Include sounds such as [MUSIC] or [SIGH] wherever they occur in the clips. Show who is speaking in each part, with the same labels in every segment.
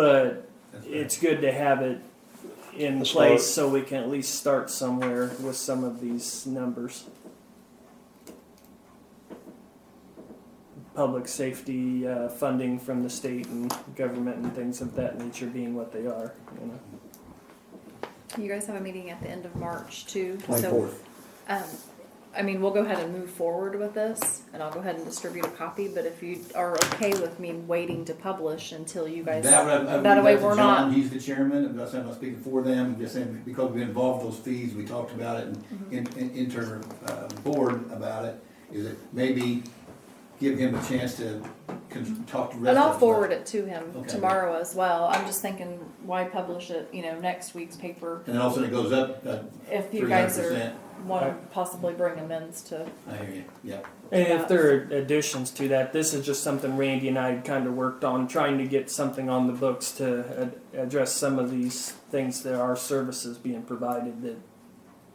Speaker 1: but
Speaker 2: That's right.
Speaker 1: it's good to have it in
Speaker 3: Let's
Speaker 1: place so we can at least start somewhere with some of these numbers. Public safety uh, funding from the state and government and things of that nature being what they are, you know.
Speaker 4: You guys have a meeting at the end of March too. So,
Speaker 3: 24th.
Speaker 4: um, I mean, we'll go ahead and move forward with this and I'll go ahead and distribute a copy, but if you are okay with me waiting to publish until you guys,
Speaker 2: That would- I would
Speaker 4: that
Speaker 2: leave
Speaker 4: way
Speaker 2: to
Speaker 4: we're
Speaker 2: John.
Speaker 4: not,
Speaker 2: He's the chairman, I'm not saying I'm speaking for them, I'm just saying because we involved those fees, we talked about it
Speaker 4: Mm-hmm.
Speaker 2: in, in, in inter, uh, board about it, is it maybe give him a chance to con- talk to.
Speaker 4: and I'll forward it to him
Speaker 2: Okay.
Speaker 4: tomorrow as well. I'm just thinking, why publish it, you know, next week's paper?
Speaker 2: And then all of a sudden it goes up, uh,
Speaker 4: If you
Speaker 2: three
Speaker 4: guys
Speaker 2: hundred
Speaker 4: are,
Speaker 2: percent.
Speaker 4: wanna possibly bring amends to,
Speaker 2: I hear you, yeah.
Speaker 1: And if there are additions to that, this is just something Randy and I had kind of worked on, trying to get something on the books to ad- address some of these things that are services being provided that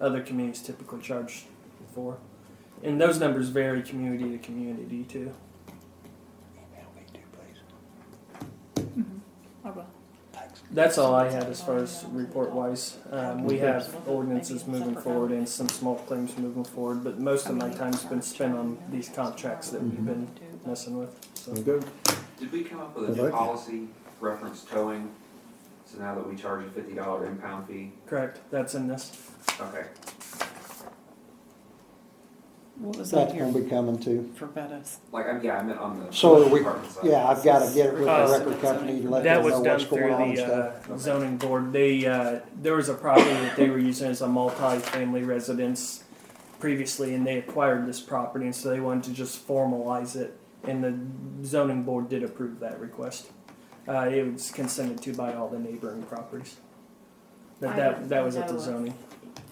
Speaker 1: other communities typically charge for. And those numbers vary community to community too.
Speaker 4: I will.
Speaker 1: That's all I had as far as report wise. Um, we have ordinances moving forward and some small claims moving forward, but most of my time's been spent on these contracts that
Speaker 4: Mm-hmm.
Speaker 1: we've
Speaker 2: Mm-hmm.
Speaker 1: been messing with. So.
Speaker 3: Good.
Speaker 5: Did we come up with a
Speaker 3: I'd
Speaker 5: new
Speaker 3: like to.
Speaker 5: policy reference towing? So now that we charge a fifty dollar impound fee,
Speaker 1: Correct. That's in this.
Speaker 5: okay.
Speaker 6: What was on
Speaker 3: That's
Speaker 6: here
Speaker 3: gonna be coming too.
Speaker 6: for Bettis?
Speaker 5: Like, I'm, yeah, I meant on the.
Speaker 3: So we,
Speaker 5: department side.
Speaker 3: yeah, I've gotta get it with
Speaker 1: Uh,
Speaker 3: the record company and let
Speaker 1: That
Speaker 3: them
Speaker 1: was
Speaker 3: know
Speaker 1: done
Speaker 3: what's
Speaker 1: through
Speaker 3: going on and stuff.
Speaker 1: the uh, zoning board. They, uh, there was a property that they were using as a multi-family residence previously, and they acquired this property, and so they wanted to just formalize it, and the zoning board did approve that request. Uh, it was consented to by all the neighboring properties. But
Speaker 4: I
Speaker 1: that,
Speaker 4: don't
Speaker 1: that was at the
Speaker 4: know.
Speaker 1: zoning.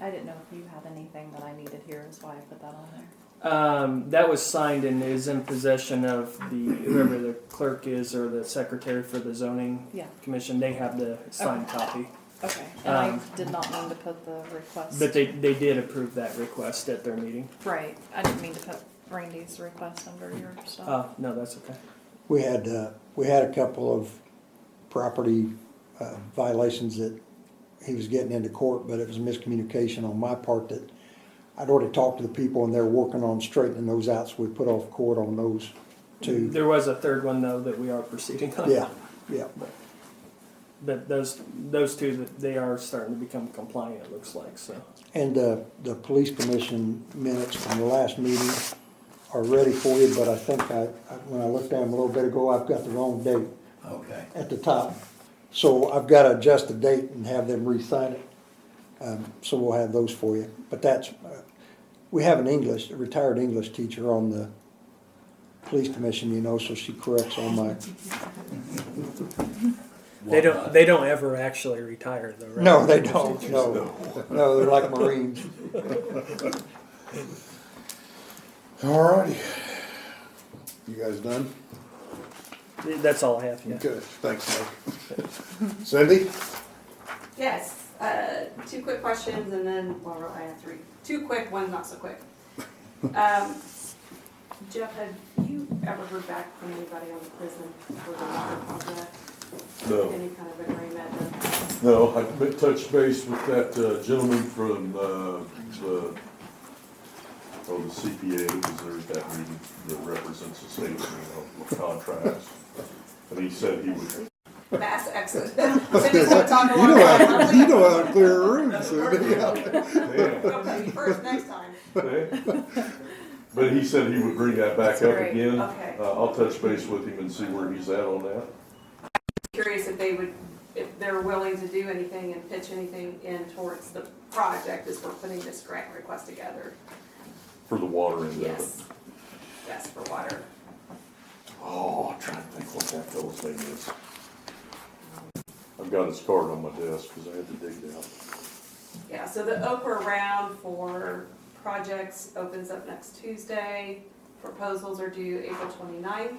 Speaker 4: I didn't know if you had anything that I needed here, is why I put that on there.
Speaker 1: Um, that was signed and is in possession of the, whoever the clerk is or the secretary for the zoning
Speaker 4: Yeah.
Speaker 1: commission. They have the signed copy.
Speaker 4: Okay, and I
Speaker 1: Um,
Speaker 4: did not mean to put the request.
Speaker 1: But they, they did approve that request at their meeting.
Speaker 4: Right, I didn't mean to put Randy's request under your stuff.
Speaker 1: Oh, no, that's okay.
Speaker 3: We had, uh, we had a couple of property uh, violations that he was getting into court, but it was miscommunication on my part that I'd already talked to the people and they're working on straightening those out, so we put off court on those two.
Speaker 1: There was a third one though that we are proceeding on.
Speaker 3: Yeah, yeah.
Speaker 1: But those, those two, that they are starting to become compliant, it looks like, so.
Speaker 3: And the, the police commission minutes from the last meeting are ready for you, but I think I, I- when I looked at them a little bit ago, I've got the wrong date
Speaker 2: Okay,
Speaker 3: at the top. So I've got to adjust the date and have them re-sign it. Um, so we'll have those for you. But that's, uh, we have an English, a retired English teacher on the police commission, you know, so she corrects all my,
Speaker 1: They don't, they don't ever actually retire though, right?
Speaker 3: no, they don't, no. No, they're like Marines.
Speaker 7: Alrighty. You guys done?
Speaker 1: That's all I have, yeah.
Speaker 7: Good, thanks, Mike. Cindy?
Speaker 8: Yes, uh, two quick questions and then, well, I have three. Two quick, one not so quick. Um, Jeff, have you ever heard back from anybody on the prison for the water project?
Speaker 9: No,
Speaker 8: Any kind of agreement?
Speaker 9: no, I m- touched base with that uh, gentleman from, uh, the, oh, the CPA, because there's that meeting that represents the state, you know, with contracts. And he said he would,
Speaker 8: or Mass
Speaker 7: [LAUGHS]
Speaker 8: exit. Cindy's gonna talk a
Speaker 7: You
Speaker 8: lot
Speaker 7: know
Speaker 8: about
Speaker 7: how,
Speaker 8: it.
Speaker 7: you know how to clear a room, Cindy.
Speaker 8: [LAUGHS]
Speaker 9: damn,
Speaker 8: Okay, First, next time.
Speaker 9: damn. But he said he would bring that back
Speaker 4: That's
Speaker 9: up
Speaker 4: great.
Speaker 9: again.
Speaker 8: Okay.
Speaker 9: Uh, I'll touch base with him and see where he's at on that.
Speaker 8: Curious if they would, if they're willing to do anything and pitch anything in towards the project as we're putting this grant request together.
Speaker 9: For the water end of it.
Speaker 8: Yes. Yes, for water.
Speaker 9: Oh, I'm trying to think what that fellow's name is. I've got his card on my desk, because I had to dig it out.
Speaker 8: Yeah, so the Oprah round for projects opens up next Tuesday. Proposals are due April 29th.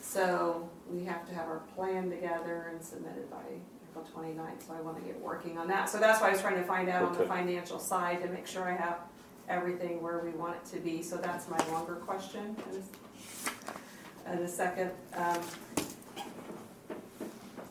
Speaker 8: So we have to have our plan together and submitted by April 29th, so I wanna get working on that. So that's why I was trying to find out on the
Speaker 9: Okay.
Speaker 8: financial side to make sure I have everything where we want it to be, so that's my longer question. And- And the second, um,